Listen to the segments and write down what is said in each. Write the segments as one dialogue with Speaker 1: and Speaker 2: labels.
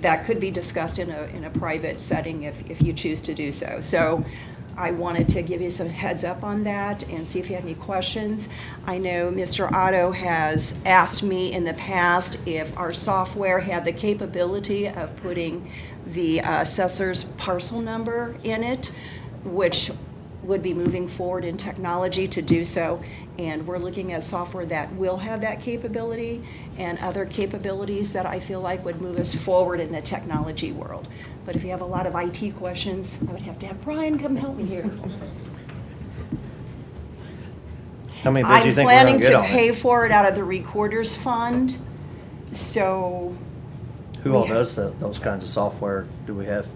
Speaker 1: that could be discussed in a, in a private setting if, if you choose to do so. So I wanted to give you some heads up on that and see if you had any questions. I know Mr. Otto has asked me in the past if our software had the capability of putting the uh, assessor's parcel number in it, which would be moving forward in technology to do so. And we're looking at software that will have that capability and other capabilities that I feel like would move us forward in the technology world. But if you have a lot of IT questions, I would have to have Brian come help me here.
Speaker 2: How many bids do
Speaker 1: I'm
Speaker 2: you think we're gonna
Speaker 1: planning
Speaker 2: get
Speaker 1: to
Speaker 2: on
Speaker 1: pay
Speaker 2: it?
Speaker 1: for it out of the recorder's fund, so
Speaker 2: Who all
Speaker 1: we-
Speaker 2: does tho- those kinds of software do we have?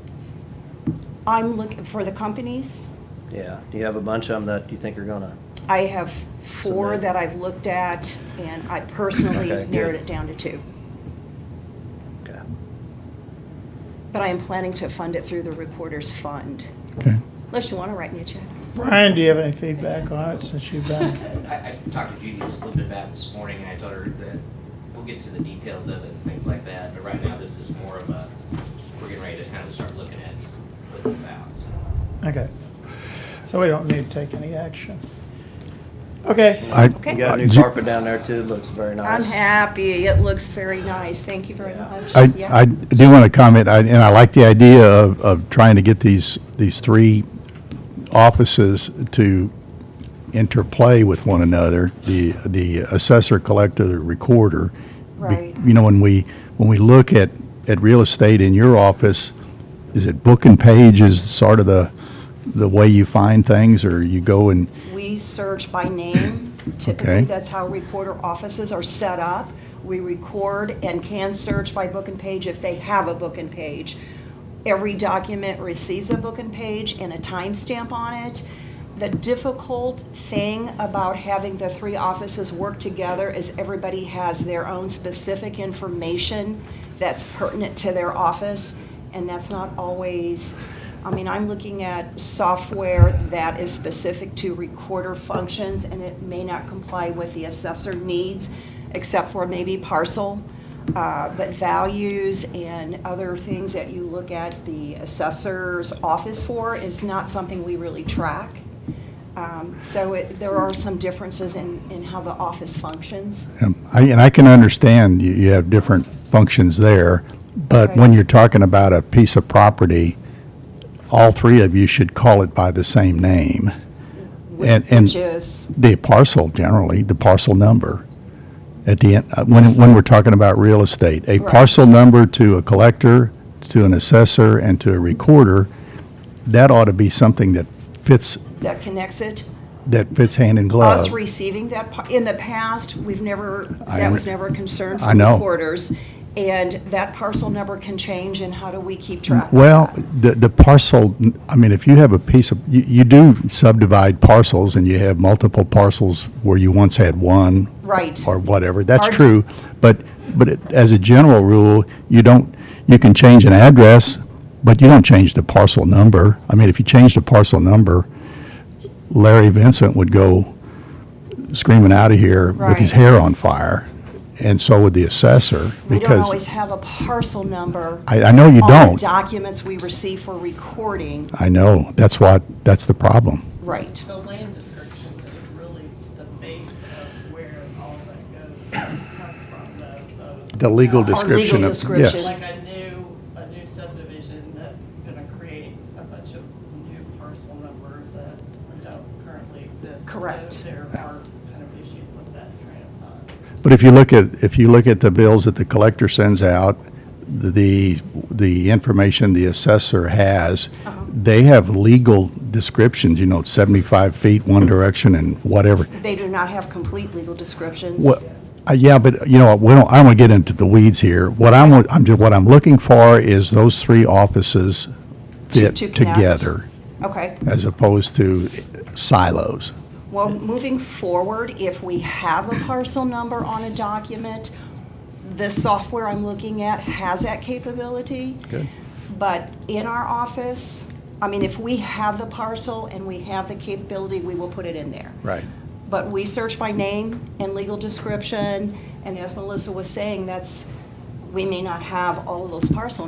Speaker 1: I'm looking for the companies.
Speaker 2: Yeah, do you have a bunch of them that you think are gonna?
Speaker 1: I have four
Speaker 2: Submit.
Speaker 1: that I've looked at, and I personally
Speaker 2: Okay, good.
Speaker 1: narrowed it down to two.
Speaker 2: Okay.
Speaker 1: But I am planning to fund it through the recorder's fund,
Speaker 3: Okay.
Speaker 1: unless you want to write me a check.
Speaker 3: Brian, do you have any feedback on it since you've been?
Speaker 4: I, I talked to Judy just a little bit about it this morning, and I told her that we'll get to the details of it and things like that, but right now, this is more of a, we're getting ready to kind of start looking at putting this out, so.
Speaker 3: Okay. So we don't need to take any action. Okay,
Speaker 5: I,
Speaker 1: Okay.
Speaker 2: You got a
Speaker 5: Uh,
Speaker 2: new
Speaker 5: ju-
Speaker 2: carpet down there too, looks very
Speaker 1: I'm
Speaker 2: nice.
Speaker 1: happy, it looks very nice, thank you very
Speaker 2: Yeah.
Speaker 1: much.
Speaker 5: I,
Speaker 1: Yeah.
Speaker 5: I do want to comment, I- and I like the idea of, of trying to get these, these three offices to interplay with one another, the, the assessor, collector, the recorder. Be-
Speaker 1: Right.
Speaker 5: You know, when we, when we look at, at real estate in your office, is it book and page is sort of the, the way you find things, or you go and,
Speaker 1: We search by name. Typically,
Speaker 5: Okay.
Speaker 1: that's how recorder offices are set up. We record and can search by book and page if they have a book and page. Every document receives a book and page and a timestamp on it. The difficult thing about having the three offices work together is everybody has their own specific information that's pertinent to their office, and that's not always I mean, I'm looking at software that is specific to recorder functions, and it may not comply with the assessor needs, except for maybe parcel. Uh, But values and other things that you look at the assessor's office for is not something we really track. Um, So it- there are some differences in, in how the office functions.
Speaker 5: Um, I- And I can understand you, you have different functions there, but when
Speaker 1: Right.
Speaker 5: you're talking about a piece of property, all three of you should call it by the same name. And- and-
Speaker 1: Which is,
Speaker 5: The parcel generally, the parcel number. At the end, uh, when, when we're talking about real estate, a
Speaker 1: Right.
Speaker 5: parcel number to a collector, to an assessor, and to a recorder, that ought to be something that fits,
Speaker 1: that connects it.
Speaker 5: that fits hand in glove.
Speaker 1: us receiving that, par- in the past, we've never,
Speaker 5: I
Speaker 1: that was
Speaker 5: under-
Speaker 1: never a concern
Speaker 5: I
Speaker 1: for
Speaker 5: know.
Speaker 1: reporters. And that parcel number can change, and how do we keep track of that?
Speaker 5: Well, the, the parcel, I mean, if you have a piece of, you, you do subdivide parcels and you have multiple parcels where you once had one
Speaker 1: Right,
Speaker 5: or whatever, that's
Speaker 1: Our-
Speaker 5: true. But, but it- as a general rule, you don't, you can change an address, but you don't change the parcel number. I mean, if you change the parcel number, Larry Vincent would go screaming out of here with his
Speaker 1: Right.
Speaker 5: hair on fire. And so would the assessor
Speaker 1: we don't
Speaker 5: because
Speaker 1: always have a parcel number.
Speaker 5: I, I know you
Speaker 1: On the
Speaker 5: don't.
Speaker 1: documents we receive for recording,
Speaker 5: I know. That's what, that's the problem.
Speaker 1: right.
Speaker 6: The land description is really the base of where all that goes comes from, the,
Speaker 5: The legal
Speaker 6: Our legal
Speaker 5: description of. yes.
Speaker 1: Oh, description.
Speaker 6: Like a new, a new subdivision that's gonna create a bunch of new parcel numbers that don't currently exist. So
Speaker 1: Correct.
Speaker 6: There are kind of issues with that train of thought.
Speaker 5: But if you look at, if you look at the bills that the collector sends out, the, the information the assessor has,
Speaker 1: Uh-huh.
Speaker 5: they have legal descriptions, you know, 75 feet one direction and whatever.
Speaker 1: They do not have complete legal descriptions.
Speaker 5: Well, uh, yeah, but you know, we don't, I don't want to get into the weeds here. What I'm, I'm, ju- what I'm looking for is those three offices
Speaker 1: To-
Speaker 5: fit
Speaker 1: to connect.
Speaker 5: together
Speaker 1: Okay.
Speaker 5: as opposed to silos.
Speaker 1: Well, moving forward, if we have a parcel number on a document, the software I'm looking at has that capability.
Speaker 5: Good.
Speaker 1: But in our office, I mean, if we have the parcel and we have the capability, we will put it in there.
Speaker 5: Right.
Speaker 1: But we search by name and legal description, and as Melissa was saying, that's, we may not have all of those parcel